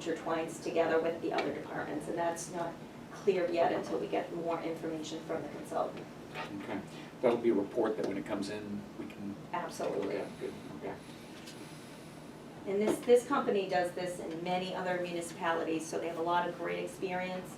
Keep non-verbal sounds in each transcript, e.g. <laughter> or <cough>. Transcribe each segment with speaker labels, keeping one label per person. Speaker 1: intertwines together with the other departments, and that's not clear yet until we get more information from the consultant.
Speaker 2: Okay, that'll be a report that when it comes in, we can take a look
Speaker 1: Absolutely.
Speaker 2: at, good,
Speaker 3: <laughs>
Speaker 2: okay.
Speaker 1: And this, this company does this in many other municipalities, so they have a lot of great experience.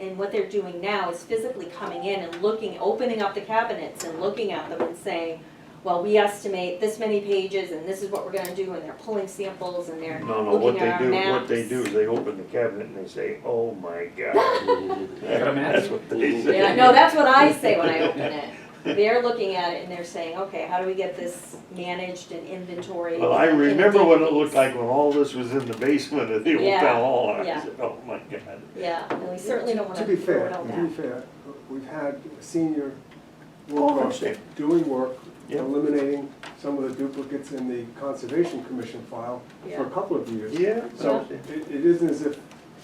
Speaker 1: And what they're doing now is physically coming in and looking, opening up the cabinets and looking at them and saying, well, we estimate this many pages and this is what we're gonna do, and they're pulling samples and they're
Speaker 3: No, no, what
Speaker 1: looking
Speaker 3: they
Speaker 1: at our
Speaker 3: do, what they
Speaker 1: maps.
Speaker 3: do is they open the cabinet and they say, oh my
Speaker 1: <laughs>
Speaker 3: god.
Speaker 2: Got a map?
Speaker 3: That's what they
Speaker 1: They're like,
Speaker 3: say.
Speaker 1: no, that's what I say when I open it. They're looking at it and they're saying, okay, how do we get this managed and inventory?
Speaker 3: Well, I remember what it looked like when all this was in the basement of the
Speaker 1: Yeah,
Speaker 3: old town hall, and
Speaker 1: yeah.
Speaker 3: I said, oh my god.
Speaker 1: Yeah, and we certainly don't wanna
Speaker 4: To be fair,
Speaker 1: throw it out
Speaker 4: to be
Speaker 1: there.
Speaker 4: fair, we've had senior
Speaker 3: Oh, I
Speaker 4: workers
Speaker 3: understand.
Speaker 4: doing work,
Speaker 3: Yeah.
Speaker 4: eliminating some of the duplicates in the Conservation Commission file for
Speaker 1: Yeah.
Speaker 4: a couple of years.
Speaker 3: Yeah.
Speaker 4: So it, it isn't as if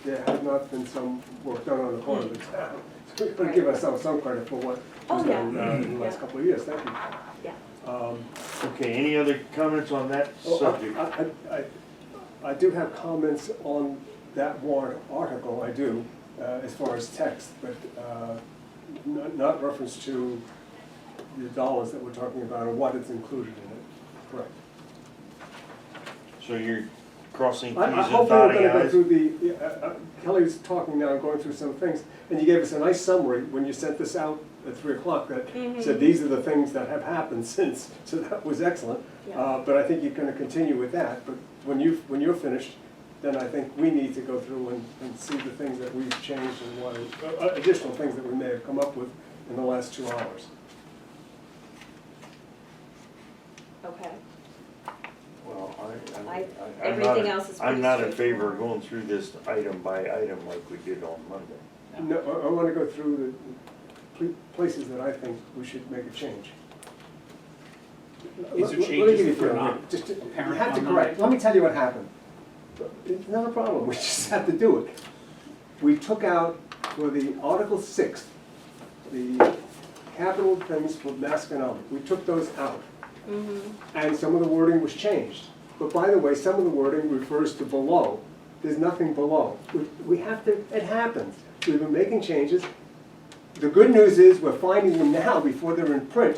Speaker 4: there had not been some work done on the part of the town. <laughs> So we've got to give ourselves some credit for what
Speaker 1: Oh,
Speaker 4: was done
Speaker 3: yeah.
Speaker 4: uh, in the last
Speaker 1: Yeah.
Speaker 4: couple of years, thank you.
Speaker 3: Um, Okay, any other comments on that
Speaker 4: Oh, I-
Speaker 3: subject?
Speaker 4: I, I, I- I do have comments on that warrant article, I do, uh, as far as text, but uh, not, not reference to the dollars that we're talking about or what is included in it. Correct.
Speaker 3: So you're crossing Ts
Speaker 4: I- I
Speaker 3: and
Speaker 4: hopefully we're
Speaker 3: dotting
Speaker 4: gonna go
Speaker 3: Is?
Speaker 4: through the, uh, uh, Kelly's talking now, going through some things, and you gave us a nice summary when you sent this out at three o'clock that said, these are the things that have happened <laughs> since, so that was excellent.
Speaker 1: Yeah.
Speaker 4: Uh, But I think you're gonna continue with that, but when you, when you're finished, then I think we need to go through and, and see the things that we've changed and what, uh, uh, additional things that we may have come up with in the last two hours.
Speaker 1: Okay,
Speaker 3: Well, I,
Speaker 1: I-
Speaker 3: I, I- I'm not,
Speaker 1: everything
Speaker 3: in-
Speaker 1: else is pretty
Speaker 3: I'm not in favor of
Speaker 1: straightforward.
Speaker 3: going through this item by item like we did on Monday.
Speaker 4: No, I, I wanna go through the pl- places that I think we should make a change.
Speaker 2: These are
Speaker 4: Let- let- let me
Speaker 2: changes
Speaker 4: give you
Speaker 2: that were
Speaker 4: a-
Speaker 2: not
Speaker 4: just- You
Speaker 2: apparent
Speaker 4: have to
Speaker 2: on Monday.
Speaker 4: correct, let me tell you what happened. It's not a problem, <laughs> we just have to do it. We took out for the Article Six, the capital things for Masconomet, we took those out. And some of the wording was changed. But by the way, some of the wording refers to below. There's nothing below. We- We have to, it happens. We've been making changes. The good news is we're finding them now before they're in print.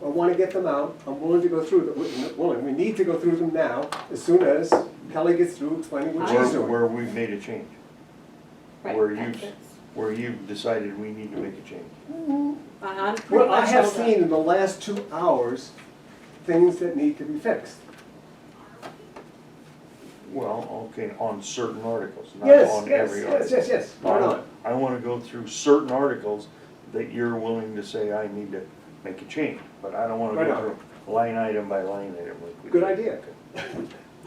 Speaker 4: I want to get them out. I'm willing to go through them. We're not Willing, we need to go through them now as soon as Kelly gets through explaining what she's
Speaker 3: Where,
Speaker 4: doing.
Speaker 3: where we've made a change,
Speaker 1: right.
Speaker 3: Were you-
Speaker 1: that's-
Speaker 3: where you've decided we need to make a change.
Speaker 1: I- I'm pretty
Speaker 4: What I
Speaker 1: much
Speaker 4: have
Speaker 1: all done.
Speaker 4: seen in the last two hours, things that need to be fixed.
Speaker 3: Well, okay, on certain articles, not
Speaker 4: Yes,
Speaker 3: on
Speaker 4: yes,
Speaker 3: every
Speaker 4: yes,
Speaker 3: article.
Speaker 4: yes, yes. Why not?
Speaker 3: I wanna go through certain articles that you're willing to say I need to make a change, but I don't wanna
Speaker 4: Why
Speaker 3: go
Speaker 4: not?
Speaker 3: through line item by line item like we did.
Speaker 4: Good idea.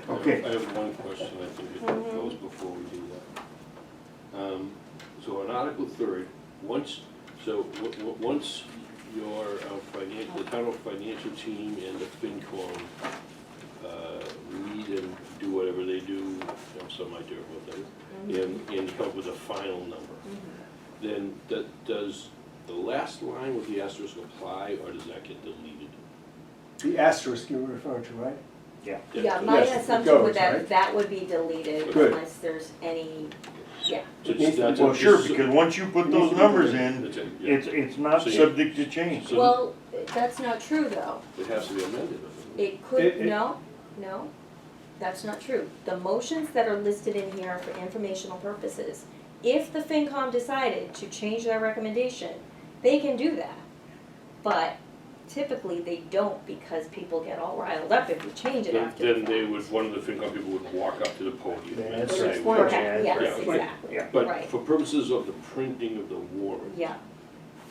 Speaker 3: Okay.
Speaker 5: I have one question, I think it goes before we do that. Um, So on Article third, once, so, w- w- once your financial, the town financial team and the FinCom uh, meet and do whatever they do, I have some idea of what
Speaker 1: Mm-hmm.
Speaker 5: they, and, and come up with a final number, then that, does the last line with the asterisk apply, or does that get deleted?
Speaker 4: The asterisk you were referring to, right?
Speaker 3: Yeah.
Speaker 1: Yeah,
Speaker 5: so
Speaker 1: my
Speaker 4: Yes, it
Speaker 1: assumption
Speaker 4: goes,
Speaker 1: would that,
Speaker 4: right?
Speaker 1: that would be deleted
Speaker 4: Good.
Speaker 1: unless there's any, yeah,
Speaker 4: It needs to-
Speaker 5: that's-
Speaker 3: Well, sure,
Speaker 5: so-
Speaker 3: because once you put
Speaker 4: It needs
Speaker 3: those
Speaker 4: to be
Speaker 3: numbers
Speaker 4: deleted.
Speaker 3: in,
Speaker 5: That's it, yeah.
Speaker 3: it's, it's not
Speaker 5: So you-
Speaker 3: subject to change.
Speaker 5: So-
Speaker 1: well, that's not true though.
Speaker 5: It has to be amended, doesn't it?
Speaker 1: It could,
Speaker 4: It- it-
Speaker 1: no, no, that's not true. The motions that are listed in here are for informational purposes, if the FinCom decided to change their recommendation, they can do that. But typically, they don't because people get all riled up if we change it
Speaker 5: Then,
Speaker 1: after the
Speaker 5: then
Speaker 1: fact.
Speaker 5: they would, one of the FinCom people would walk up to the podium and
Speaker 3: That's
Speaker 5: say.
Speaker 3: right.
Speaker 5: "Well,
Speaker 3: Okay.
Speaker 1: Correct,
Speaker 3: Yeah,
Speaker 1: yes,
Speaker 5: right.
Speaker 1: exactly,
Speaker 3: Yeah.
Speaker 5: But
Speaker 1: Right.
Speaker 5: for purposes of the printing of the warrant.
Speaker 1: yeah.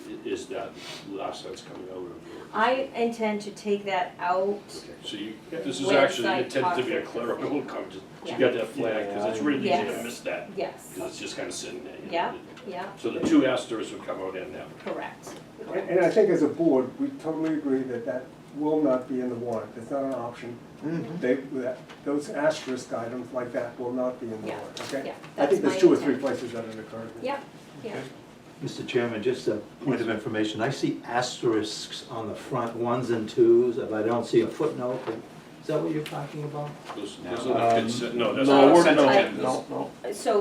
Speaker 5: i- Is that last sentence coming out of your?
Speaker 1: I intend to take that out.
Speaker 5: Okay, So you, this is
Speaker 1: Website
Speaker 5: actually intended to be a
Speaker 1: process.
Speaker 5: clerical comment, you
Speaker 1: Yeah.
Speaker 5: got that flag, because it's really easy to
Speaker 1: Yes.
Speaker 5: miss that,
Speaker 1: Yes,
Speaker 5: because it's just kind of sitting there. you know.
Speaker 1: Yeah. yeah,
Speaker 5: So the two asterisks would come out in that.
Speaker 1: correct.
Speaker 4: And and I think as a board, we totally agree that that will not be in the warrant, that's not an option.
Speaker 3: Mhm.
Speaker 4: They, that, those asterisk items like that will not be in the
Speaker 1: Yeah,
Speaker 4: warrant, okay?
Speaker 1: yeah,
Speaker 4: I
Speaker 1: that's
Speaker 4: think
Speaker 1: my
Speaker 4: there's two or three
Speaker 1: intent.
Speaker 4: places that it occurred.
Speaker 1: Yep, yeah.
Speaker 6: Mr. Chairman, just a point of information, I see asterisks on the front ones and twos, but I don't see a footnote, but
Speaker 7: Is that what you're talking about?
Speaker 3: Those-
Speaker 8: No.
Speaker 3: those are the
Speaker 1: Um,
Speaker 3: consent- No, that's
Speaker 5: no,
Speaker 3: not
Speaker 5: we're-
Speaker 3: consent
Speaker 5: Um, no,
Speaker 3: agendas.
Speaker 1: No, no.
Speaker 5: So